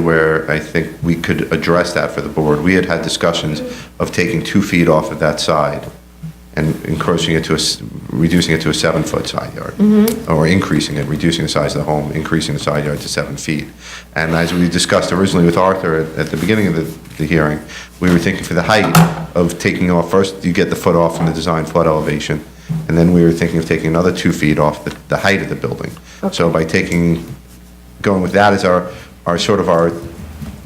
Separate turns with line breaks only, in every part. where I think we could address that for the board. We had had discussions of taking two feet off of that side and encroaching it to a, s- reducing it to a seven-foot side yard. Or increasing it, reducing the size of the home, increasing the side yard to seven feet. And as we discussed originally with Arthur at, at the beginning of the, the hearing, we were thinking for the height of taking off, first you get the foot off from the design flood elevation, and then we were thinking of taking another two feet off the, the height of the building. So by taking going with that as our, our sort of our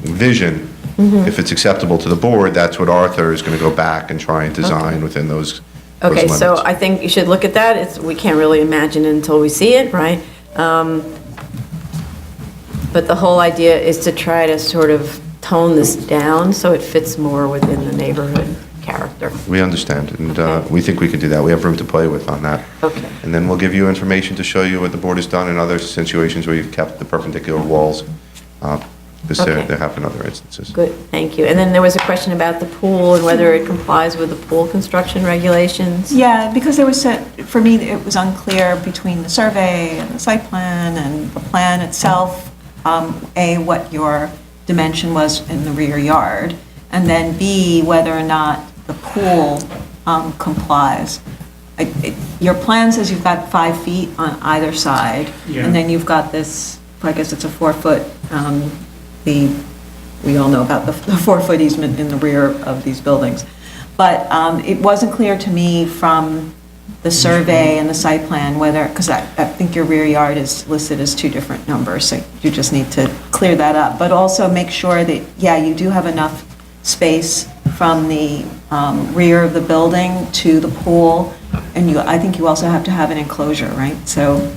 vision.
Mm-hmm.
If it's acceptable to the board, that's what Arthur is going to go back and try and design within those those
Okay, so
limits.
I think you should look at that. It's, we can't really imagine it until we see it, right? Um, But the whole idea is to try to sort of tone this down so it fits more within the neighborhood character.
We understand, and uh,
Okay.
we think we can do that. We have room to play with on that.
Okay.
And then we'll give you information to show you what the board has done in other situations where you've kept the perpendicular walls, uh, because there
Okay.
there have been other instances.
Good, thank you. And then there was a question about the pool and whether it complies with the pool construction regulations.
Yeah, because there was, a- for me, it was unclear between the survey and the site plan and the plan itself, um, A, what your dimension was in the rear yard, and then B, whether or not the pool um, complies. I- it- Your plan says you've got five feet on either side,
Yeah.
and then you've got this, I guess it's a four-foot, um, the, we all know about the the four-foot easement in the rear of these buildings. But um, it wasn't clear to me from the survey and the site plan whether, because I, I think your rear yard is listed as two different numbers, so you just need to clear that up. But also make sure that, yeah, you do have enough space from the um, rear of the building to the pool, and you, I think you also have to have an enclosure, right? So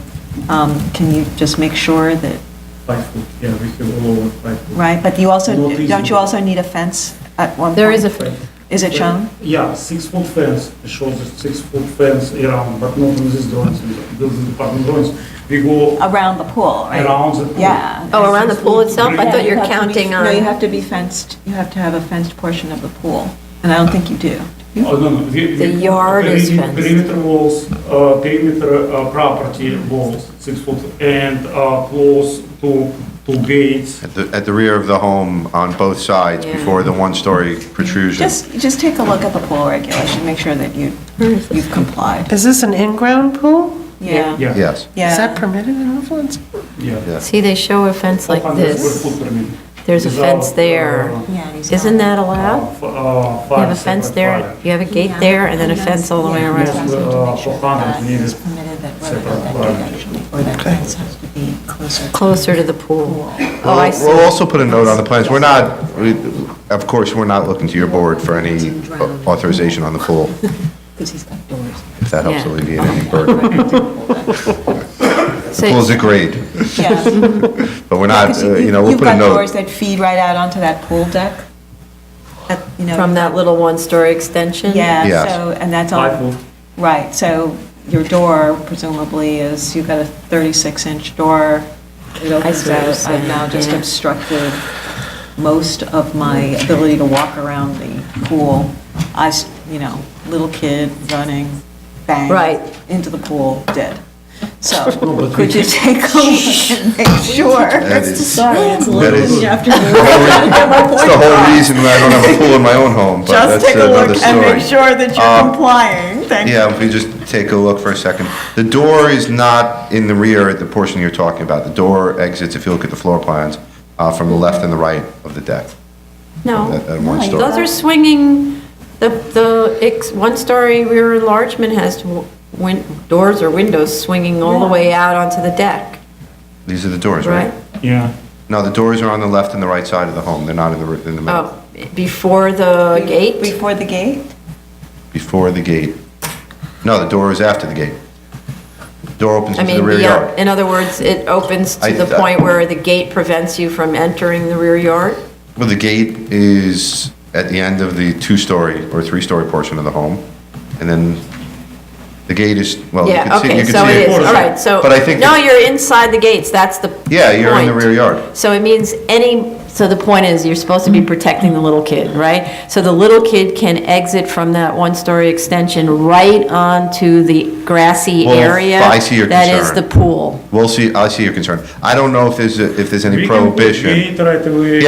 um, can you just make sure that,
Five foot, yeah, we can all over five foot.
right? But you also,
Not
don't you
feasible.
also need a fence at one point?
There is a,
Is it shown?
Yeah, six foot fence, it shows a six foot fence around, but not in this drawings, in the building department drawings. We go
Around the pool, right?
around the pool.
Yeah.
oh, around the pool itself? I thought
Yeah,
you were
you have to be-
counting
No, you
on,
have to be fenced, you have to have a fenced portion of the pool, and I don't think you do.
Oh, no, no. we- we-
The yard is
peri-
fenced.
Perimeter walls, uh, perimeter uh, property walls, six foot, and uh, close to, to gates.
At the, at the rear of the home on both sides
Yeah.
before the one-story protrusion.
Just, just take a look at the pool regulation, make sure that you, you've complied.
Is this an in-ground pool?
Yeah,
Yeah,
Yes,
yeah.
Is that permitted in Hopkins?
yeah.
yes.
see, they show a fence like
400
this.
square foot per minute.
There's a
Without,
fence there.
uh,
Yeah, and he's
Isn't
not-
that allowed?
f- uh,
You have a
fire,
fence
separate
there,
fire.
you have a gate there, and then a fence all the way around.
Yes, uh, for hundred, we need it.
Closer to the pool. Oh, I
We'll we'll
see.
also put a note on the plans, we're not, we- of course, we're not looking to your board for any authorization on the pool,
Because he's got doors.
if that helps
Yeah.
alleviate any burden. The pool's a grade,
Yeah.
but we're not, uh, you know, we'll
You've
put a
got doors
note.
that feed right out onto that pool deck, that, you know.
From that little one-story extension?
Yeah,
Yes.
so, and that's
Five
all,
foot.
right, so your door presumably is, you've got a 36-inch door. It opens
see what you're
out, I've now
saying,
just
yeah.
obstructed most of my ability to walk around the pool. I, s- you know, little kid running, bang.
Right.
Into the pool, dead. So, could you take a look and make sure?
That is-
That
is-
You have to
That's the whole reason why I don't have a pool in my own home, but
just
that's
take a
another
look and make
story.
sure that
Uh,
you're complying, thank you.
Yeah, if we just take a look for a second. The door is not in the rear, at the portion you're talking about. The door exits, if you look at the floor plans, uh, from the left and the right of the deck,
No.
at at one story.
Those are swinging, the, the ex- one-story rear enlargement has w- win- doors or windows swinging all the way out onto the deck,
These are the doors, right?
right?
Yeah.
No, the doors are on the left and the right side of the home, they're not in the, r- in the middle,
Oh, before the gate?
Before the gate?
before the gate. No, the door is after the gate. Door opens
I
into the
mean,
rear
beyond-
yard.
in other words, it opens
I-
to the point where the gate prevents you from entering the rear yard?
Well, the gate is at the end of the two-story or three-story portion of the home, and then the gate is, well, you
Yeah,
can see, you
okay,
can
so
see
it is,
it.
all right, so,
But I think
no,
that-
you're inside the gates, that's the
Yeah, you're in the
point.
rear yard.
So it means any, so the point is, you're supposed to be protecting the little kid, right? So the little kid can exit from that one-story extension right onto the grassy
Well,
area.
I see your
That is the
concern.
pool.
We'll see, I see your concern. I don't know if there's, a- if there's any
We can put
prohibition.
gate right away.
Yeah,